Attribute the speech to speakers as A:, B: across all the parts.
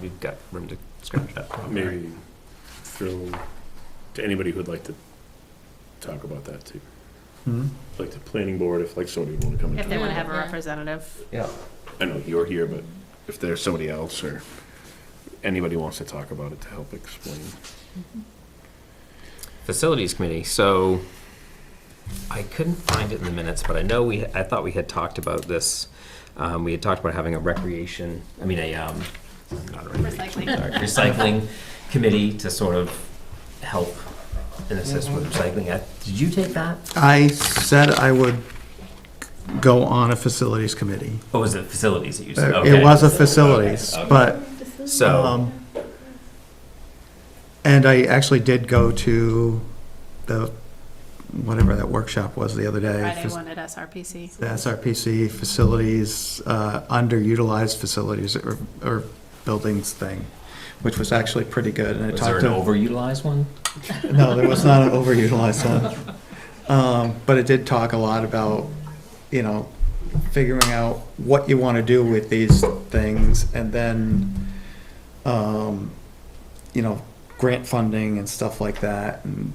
A: we've got room to scratch that problem. right?
B: Maybe throw to anybody who'd like to talk about that too.
C: Hmm?
B: Like the planning board, if like somebody would want to come and
D: If they
B: talk.
D: want to have a
E: Yeah.
D: representative.
C: Yeah.
B: I know you're here, but if there's somebody else or anybody wants to talk about it to help explain.
A: Facilities committee, so I couldn't find it in the minutes, but I know we, I thought we had talked about this. Um, we had talked about having a recreation, I mean, a, um, not a recreation,
E: Recycling.
A: sorry, recycling committee to sort of help and assist with recycling. Uh, Did you take that?
C: I said I would go on a facilities committee.
A: Or was it facilities that you said? Okay.
C: It was a facilities,
A: Okay.
C: but,
A: So,
C: um, and I actually did go to the, whatever that workshop was the other day.
D: Friday
C: fac-
D: one at SRPC.
C: The SRPC facilities, uh, underutilized facilities or, or buildings thing, which was actually pretty good. And it
A: was there
C: talked
A: an
C: to,
A: overutilized one?
C: no, there was not an overutilized one. Um, But it did talk a lot about, you know, figuring out what you want to do with these things and then, um, you know, grant funding and stuff like that and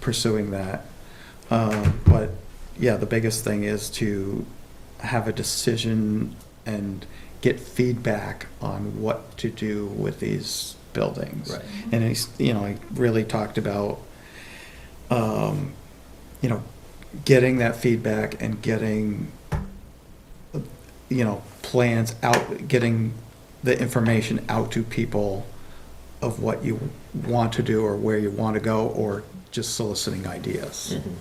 C: pursuing that. Um, But yeah, the biggest thing is to have a decision and get feedback on what to do with these buildings.
A: Right.
C: And he's, you know, he really talked about, um, you know, getting that feedback and getting, you know, plans out, getting the information out to people of what you want to do or where you want to go, or just soliciting ideas.
A: Mhm.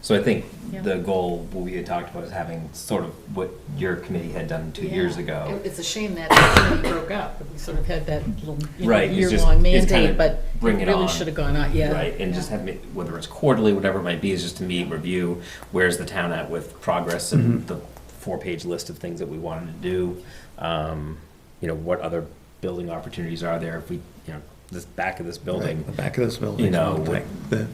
A: So I think
D: Yeah.
A: the goal, what we had talked about is having sort of what your committee had done two years
E: Yeah.
A: ago.
E: It- It's a shame that it really broke up. We sort of had that little you know,
A: Right, it's just-
E: year-long
A: it's kinda
E: mandate, but it
A: bring it on,
E: really should have gone on, yeah.
A: Right, and just
E: Yeah.
A: have, it- whether it's quarterly, whatever it might be, is just to meet, review, where's the town at with progress
C: Mm-hmm.
A: and the four-page list of things that we wanted to do. Um, You know, what other building opportunities are there if we, you know, this back of this building.
C: Right, The back of this building.
A: You know,
C: one thing, The,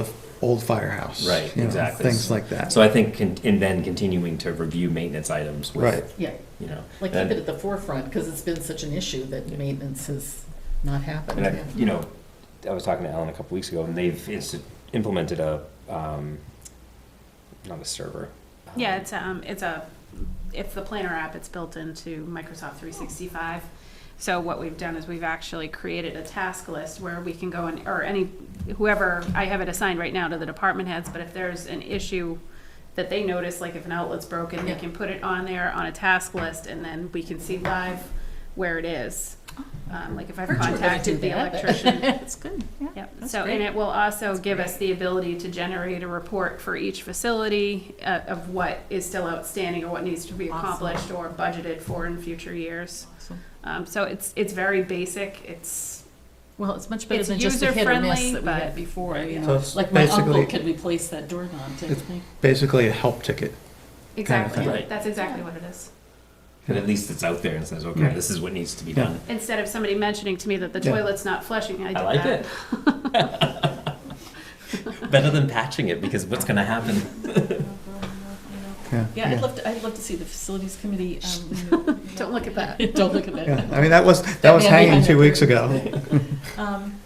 C: the old firehouse.
A: Right,
C: you know,
A: exactly.
C: Things like that.
A: So I think, con- and then continuing to review maintenance items
C: Right.
A: with,
E: Yeah,
A: you know.
E: like keep
A: and-
E: it at the forefront, because it's been such an issue that maintenance has not happened.
A: And I,
E: yeah.
A: you know, I was talking to Ellen a couple weeks ago, and they've insti- implemented a, um, not a server. um,
D: Yeah, it's, um, it's a, it's the planner app. It's built into Microsoft 365. So what we've done is we've actually created a task list where we can go and, or any, whoever, I have it assigned right now to the department heads, but if there's an issue that they notice, like if an outlet's broken, they
E: Yeah.
D: can put it on there on a task list, and then we can see live where it is. Um, like if I've
E: Virtual, I do
D: contacted the
E: that, but-
D: electrician,
E: That's good, yeah.
D: Yep,
E: That's
D: so,
E: great.
D: and it will also give us the ability to generate a report for each facility uh, of what is still outstanding or what needs to be
E: Awesome.
D: accomplished or budgeted for in future years.
E: Awesome.
D: Um, So it's, it's very basic, it's,
E: Well, it's much better
D: It's
E: than just the hit or miss
D: user-friendly,
E: that we had
D: but-
E: before, you
C: So
E: know.
C: it's
E: Like my uncle
C: basically-
E: could replace that doorknob, didn't
C: It's-
E: he?
C: Basically a help ticket.
D: exactly,
A: thing. Right.
D: that's exactly what it is.
A: And at least it's out there and says, okay,
C: Right.
A: this is what needs to be
C: Yeah.
A: done.
D: Instead of somebody mentioning to me that the
C: Yeah.
D: toilet's not flushing, I did
A: I
D: that.
A: like it. Better than patching it, because what's gonna happen?
C: Yeah.
F: Yeah, I'd love to, I'd love to see the facilities committee. um,
D: Don't look at that.
E: Don't look at that.
C: Yeah, I mean, that was, that
E: That
C: was
E: man
C: hanging
E: behind
C: two
E: the
C: weeks
E: curtain.
C: ago.
F: um,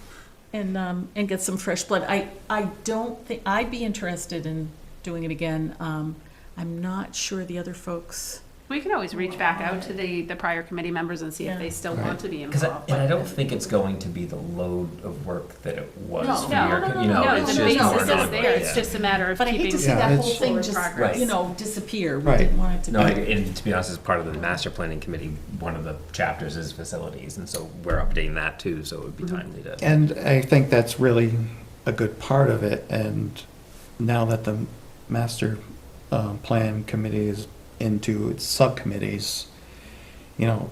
F: And, um, and get some fresh blood. I, I don't think, I'd be interested in doing it again. Um, I'm not sure the other folks.
D: We can always reach back out to the, the prior committee members and see if
F: Yeah.
D: they still
C: Right.
D: want to be
A: Because,
D: involved.
A: and I don't think it's going to be the load of work that it was
E: No.
A: for
D: No,
A: your,
E: no, no,
A: you know,
E: no, no,
A: it's
D: the
A: just
E: no,
A: more.
D: basis
E: no,
A: non-work,
D: is
E: no,
D: there, it's
A: yeah.
D: just a matter of
F: But I hate to
D: keeping.
F: see
C: Yeah,
F: that
C: it's-
F: whole
E: Forward
F: thing just,
A: progress.
F: you know, disappear. We
C: Right.
F: didn't want it to be.
A: No, I- and to be honest, as part of the master planning committee, one of the chapters is facilities, and so we're updating that too, so it would be
D: Mm-hmm.
A: timely to.
C: And I think that's really a good part of it, and now that the master um, plan committee is into its subcommittees, you know,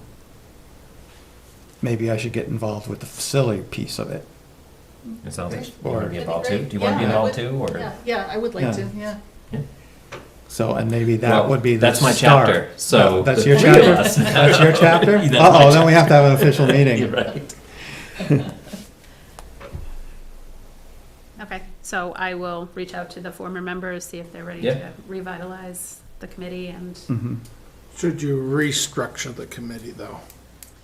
C: maybe I should get involved with the facility piece of it.
A: It sounds like you
C: Or-
A: want to be involved too. Do you want
E: Yeah,
A: to
E: I
A: be involved
E: would-
A: too, or?
E: Yeah, yeah, I would
C: Yeah.
E: like to, yeah.
C: So, and maybe
A: Well,
C: that would be the
A: That's my
C: start.
A: chapter, so.
C: That's your chapter? That's your chapter?
A: That's my
C: Uh-oh, then we have to have an official
A: You're
C: meeting.
A: right.
D: Okay, so I will reach out to the former members, see if they're ready to
A: Yeah.
D: revitalize the committee and
C: Mhm.
G: Should you restructure the committee, though?